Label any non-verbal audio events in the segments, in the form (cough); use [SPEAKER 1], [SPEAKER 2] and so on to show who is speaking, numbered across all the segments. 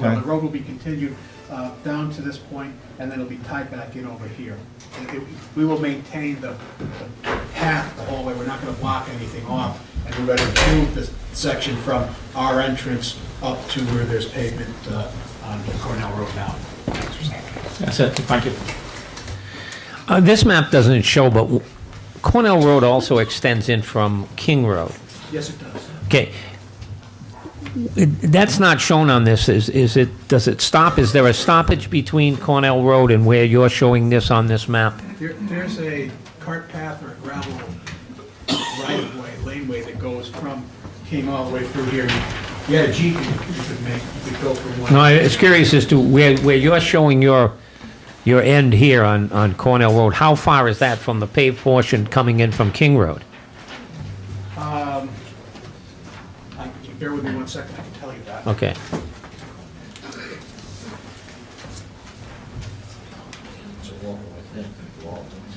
[SPEAKER 1] Well, the
[SPEAKER 2] Okay.
[SPEAKER 1] road will be continued uh, down to this point, and then it'll be tied back in over here. And it- We will maintain the the path the whole way, we're not gonna block anything off, and we're gonna improve this section from our entrance up to where there's pavement uh, on Cornell Road now.
[SPEAKER 3] That's it, thank you. Uh, This map doesn't show, but w- Cornell Road also extends in from King Road.
[SPEAKER 1] Yes, it does.
[SPEAKER 3] Okay. It- That's not shown on this, is, is it, does it stop? Is there a stoppage between Cornell Road and where you're showing this on this map?
[SPEAKER 1] There- There's a cart path or a gravel right-of-way, laneway that goes from, came all the way through here. You had a Jeep, you could make, you could go from one.
[SPEAKER 3] No, I was curious as to where, where you're showing your, your end here on, on Cornell Road, how far is that from the paved portion coming in from King Road?
[SPEAKER 1] I- Bear with me one second, I can tell you that.
[SPEAKER 3] Okay.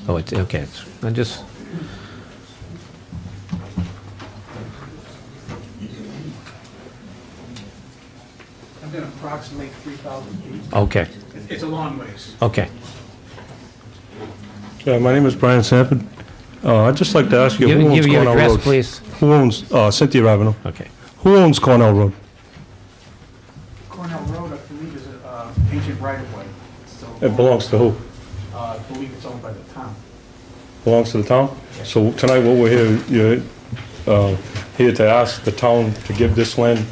[SPEAKER 3] Oh, it's, okay, it's, I just,
[SPEAKER 1] I'm going to approximate 3,000 feet.
[SPEAKER 3] okay,
[SPEAKER 1] It- It's a long ways.
[SPEAKER 3] okay.
[SPEAKER 4] Yeah, my name is Brian Sanford. Uh, I'd just like to ask you,
[SPEAKER 3] Give,
[SPEAKER 4] who owns
[SPEAKER 3] give your
[SPEAKER 4] Cornell
[SPEAKER 3] address,
[SPEAKER 4] Road?
[SPEAKER 3] please.
[SPEAKER 4] Who owns, uh, Cynthia Ravenel.
[SPEAKER 3] Okay.
[SPEAKER 4] Who owns Cornell Road?
[SPEAKER 1] Cornell Road, I believe, is a, uh, ancient right-of-way. So,
[SPEAKER 4] It belongs to who?
[SPEAKER 1] uh, I believe it's owned by the town.
[SPEAKER 4] Belongs to the town? So tonight, what we're here, you're, uh, here to ask the town to give this land,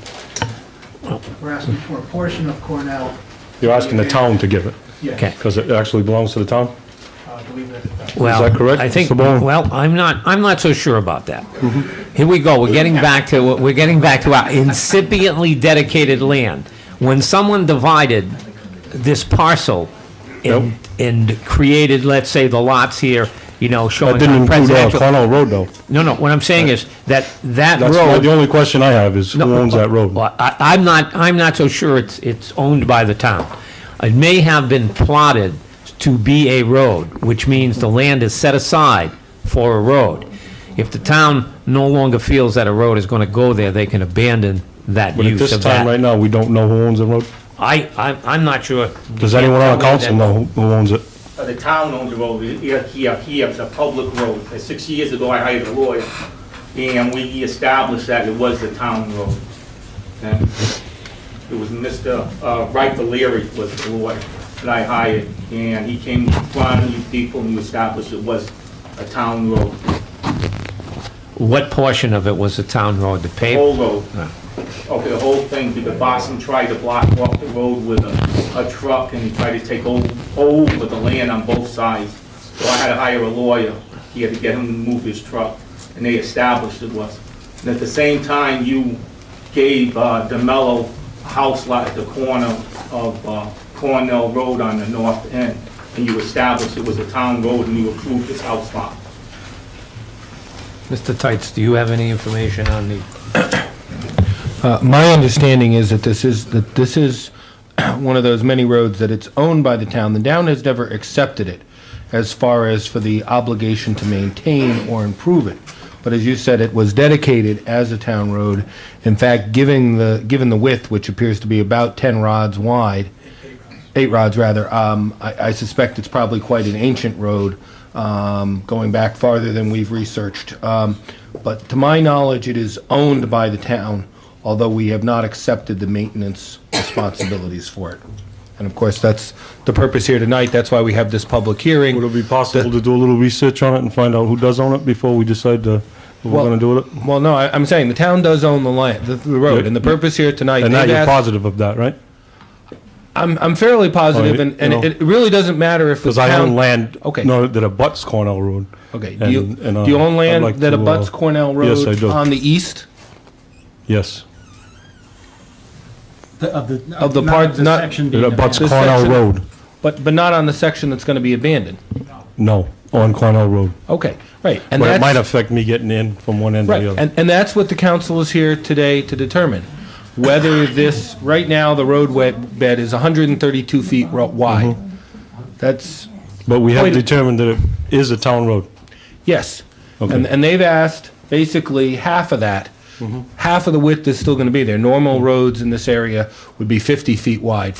[SPEAKER 1] We're asking for a portion of Cornell.
[SPEAKER 4] you're asking the town to give it,
[SPEAKER 3] Okay.
[SPEAKER 1] Yes,
[SPEAKER 4] because it actually belongs to the town?
[SPEAKER 1] uh, I believe that it does.
[SPEAKER 3] Well,
[SPEAKER 4] that correct,
[SPEAKER 3] I think,
[SPEAKER 4] Mr. Bowen?
[SPEAKER 3] well, I'm not, I'm not so sure about that.
[SPEAKER 4] Mm-hmm.
[SPEAKER 3] Here we go, we're getting back to, we're getting back to our incipiently dedicated land. When someone divided this parcel and, and created, let's say, the lots here, you know,
[SPEAKER 4] That
[SPEAKER 3] showing our
[SPEAKER 4] didn't include, uh,
[SPEAKER 3] presidential.
[SPEAKER 4] Cornell Road, though.
[SPEAKER 3] No, no, what I'm saying is that that
[SPEAKER 4] That's my- the
[SPEAKER 3] road.
[SPEAKER 4] only question I have is, who
[SPEAKER 3] No,
[SPEAKER 4] owns that road?
[SPEAKER 3] Well, I, I'm not, I'm not so sure it's, it's owned by the town. It may have been plotted to be a road, which means the land is set aside for a road. If the town no longer feels that a road is gonna go there, they can abandon that
[SPEAKER 4] But at
[SPEAKER 3] use
[SPEAKER 4] this
[SPEAKER 3] of
[SPEAKER 4] time, right
[SPEAKER 3] that.
[SPEAKER 4] now, we don't know who owns the road.
[SPEAKER 3] I, I'm, I'm not sure.
[SPEAKER 4] Does anyone on the
[SPEAKER 3] Yeah, that-
[SPEAKER 4] council know who who owns it?
[SPEAKER 5] Uh, The town owns the road, It- it- here, here, it's a public road. Uh, Six years ago, I hired a lawyer, and we established that it was the town road. And It was Mr. uh, Wright Valeri was the lawyer that I hired, and he came to front of these people, and we established it was a town road,
[SPEAKER 3] What portion of it was the town road, the paved?
[SPEAKER 5] whole road. Okay, the whole thing, because Boston tried to block off the road with a, a truck and he tried to take o- over the land on both sides. So I had to hire a lawyer, he had to get him to move his truck, and they established it was. And at the same time, you gave uh, DeMello a house lot at the corner of uh, Cornell Road on the north end, and you established it was a town road and you approved his house lot.
[SPEAKER 3] Mr. Tights, do you have any information on the?
[SPEAKER 6] Uh, My understanding is that this is, that this is (clears throat) one of those many roads that it's owned by the town. The town has never accepted it as far as for the obligation to maintain or improve it. But as you said, it was dedicated as a town road. In fact, giving the, given the width, which appears to be about 10 rods wide, eight rods rather. Um, I, I suspect it's probably quite an ancient road, um, going back farther than we've researched. Um, but to my knowledge, it is owned by the town, although we have not accepted the maintenance responsibilities for it. And of course, that's the purpose here tonight. That's why we have this public hearing.
[SPEAKER 4] Would it be possible to do a little research on it and find out who does own it before we decide to, what we're
[SPEAKER 6] Well-
[SPEAKER 4] gonna do with it?
[SPEAKER 6] Well, no, I, I'm saying the town does own the land, the, the road,
[SPEAKER 4] Yeah.
[SPEAKER 6] and the purpose here tonight.
[SPEAKER 4] And now
[SPEAKER 6] they've
[SPEAKER 4] you're
[SPEAKER 6] asked-
[SPEAKER 4] positive of that, right?
[SPEAKER 6] I'm, I'm fairly positive,
[SPEAKER 4] Well,
[SPEAKER 6] and, and
[SPEAKER 4] you know,
[SPEAKER 6] it really doesn't matter if the
[SPEAKER 4] Because I
[SPEAKER 6] town
[SPEAKER 4] own land,
[SPEAKER 6] Okay.
[SPEAKER 4] no, that abuts Cornell Road.
[SPEAKER 6] Okay, do you,
[SPEAKER 4] And- and, uh,
[SPEAKER 6] do you own
[SPEAKER 4] I'd
[SPEAKER 6] land
[SPEAKER 4] like
[SPEAKER 6] that
[SPEAKER 4] to, uh,
[SPEAKER 6] abuts Cornell Road?
[SPEAKER 4] yes, I do.
[SPEAKER 6] On the east
[SPEAKER 4] Yes,
[SPEAKER 2] Of the.
[SPEAKER 6] Of the
[SPEAKER 2] not
[SPEAKER 6] part- not-
[SPEAKER 2] section
[SPEAKER 4] it
[SPEAKER 2] being
[SPEAKER 4] abuts
[SPEAKER 2] abandoned.
[SPEAKER 6] This
[SPEAKER 4] Cornell
[SPEAKER 6] section-
[SPEAKER 4] Road.
[SPEAKER 6] but but not on the section that's going to be abandoned.
[SPEAKER 4] No, on Cornell Road.
[SPEAKER 6] Okay, right, and
[SPEAKER 4] But it
[SPEAKER 6] that's
[SPEAKER 4] might affect me getting in from one end to
[SPEAKER 6] right,
[SPEAKER 4] the other.
[SPEAKER 6] and, and that's what the council is here today to determine whether this right now the roadway bed is 132 feet ro- wide.
[SPEAKER 4] Mm-hmm.
[SPEAKER 6] That's
[SPEAKER 4] But we have
[SPEAKER 6] Wait.
[SPEAKER 4] determined that it is a town road.
[SPEAKER 6] Yes.
[SPEAKER 4] Okay.
[SPEAKER 6] And, and they've asked basically half of that half of the width is still going to be there. Normal roads in this area would be 50 feet wide,